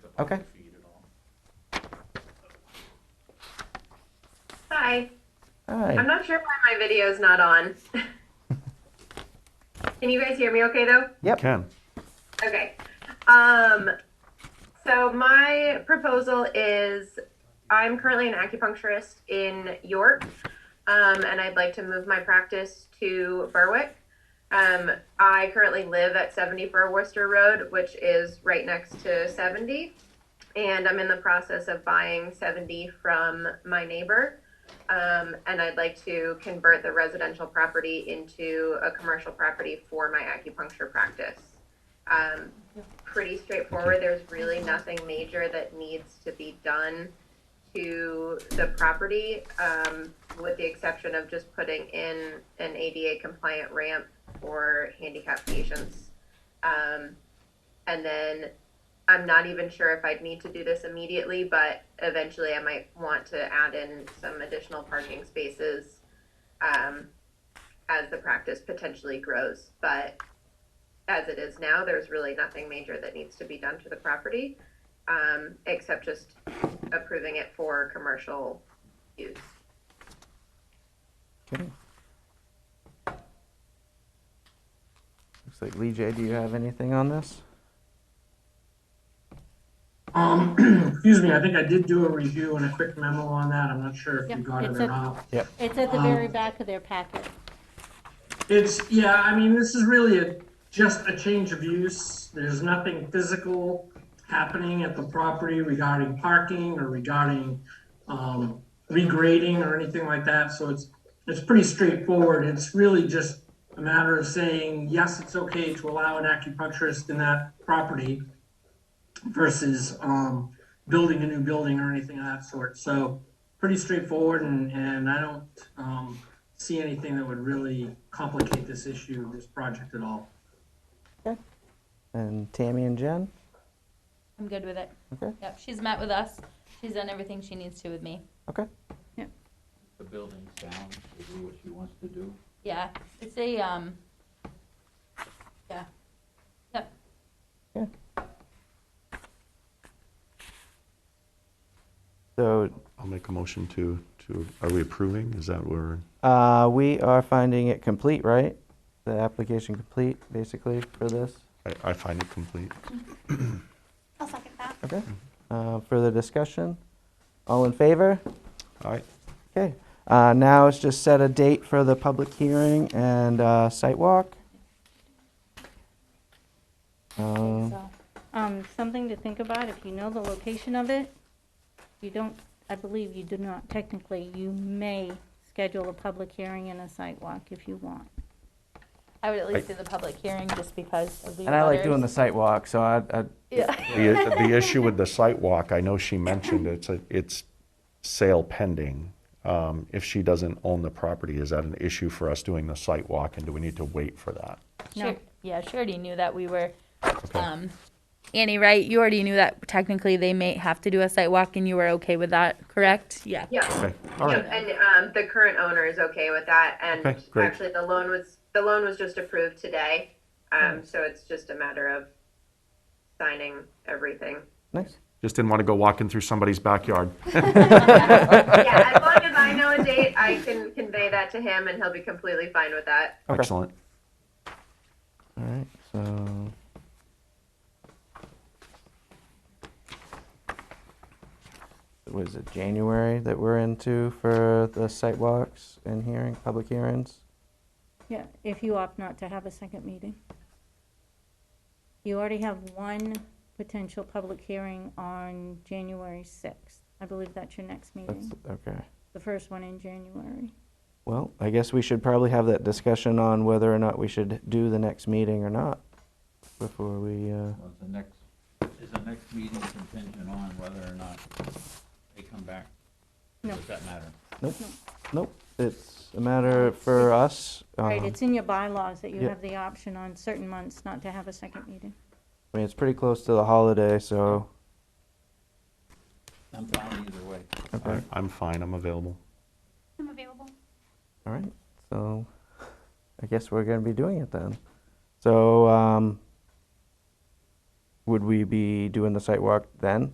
Okay. feed at all. Hi. All I'm right. not sure why my video's not on. Can you guys hear me okay though? Yep. Can. Okay. Um, so my proposal is I'm currently an acupuncturist in York, um, and I'd like to move my practice to Berwick. Um, I currently live at 70 Burwester Road, which is right next to 70, and I'm in the process of buying 70 from my neighbor. Um, and I'd like to convert the residential property into a commercial property for my acupuncture practice um, pretty straightforward. There's really nothing major that needs to be done to the property, um, with the exception of just putting in an ADA compliant ramp for handicapped patients. Um, and then I'm not even sure if I'd need to do this immediately, but eventually I might want to add in some additional parking spaces, um, as the practice potentially grows. But as it is now, there's really nothing major that needs to be done to the property, um, except just approving it for commercial use. Okay. Looks like Lee J, do you have anything on this? Um, excuse me, I think I did do a review and a quick memo on that. I'm not sure if you Yep, got it it's or a- not. It's at the Um, very back of their packet. It's, yeah, I mean, this is really a, just a change of use. There's nothing physical happening at the property regarding parking or regarding, um, regrading or anything like that. So it's, it's pretty straightforward. It's really just a matter of saying, yes, it's okay to allow an acupuncturist in that property versus, um, building a new building or anything of that sort. So pretty straightforward and, and I don't, um, see anything that would really complicate this issue, this project at all. And Tammy and Jen? I'm good with it. Okay. Yep, she's met with us. She's done everything she needs to with me. Okay. The building's down, she'll do what she wants to do. Yeah, it's a, um, yeah. Yep, So I'll make a motion to, to, are we approving? Is that where? uh, we are finding it complete, right? The application complete, basically, for this. I, I find it complete. I'll second that. Okay. Mm-hmm. Uh, further discussion? All in favor? All right. Okay. Uh, now it's just set a date for the public hearing and uh, site walk. Um, so, Um, something to think about, if you know the location of it, you don't, I believe you do not technically, you may schedule a public hearing and a site walk if you want. I would at least do I- the public hearing just because of the And I like doing the others. site walk, so I, I, Yeah, The, the issue with the site walk, I know she mentioned it's, a- it's sale pending. Um, if she doesn't own the property, is that an issue for us doing the site walk and do we need to wait for that? No. Sure- yeah, she already knew that we were, Okay. um, Annie, right? You already knew that technically they may have to do a site walk and you were okay with that, correct? Yeah. Yeah, Okay, all right. and, um, the current owner is okay with that, and Okay, great. actually, the loan was, the loan was just approved today. Um, so it's just a matter of signing everything. nice. Just didn't want to go walking through somebody's backyard. Yeah, as long as I know a date, I can convey that to him, and he'll be completely fine with that. Okay. Excellent. All right, so. Was it January that we're into for the site walks and hearing, public hearings? Yeah, if you opt not to have a second meeting. You already have one potential public hearing on January sixth. I believe that's your next That's, meeting, okay. the first one in January. Well, I guess we should probably have that discussion on whether or not we should do the next meeting or not before we, uh, Was the next, is the next meeting contingent on whether or not they come back? No. Does that matter? nope, nope. It's a matter for us. Right, um, it's in your bylaws that you yeah. have the option on certain months not to have a second meeting. I mean, it's pretty close to the holiday, so. I'm fine either way. I- I'm fine, I'm available. I'm available. All right, so I guess we're going to be doing it then. So, um, would we be doing the site walk then?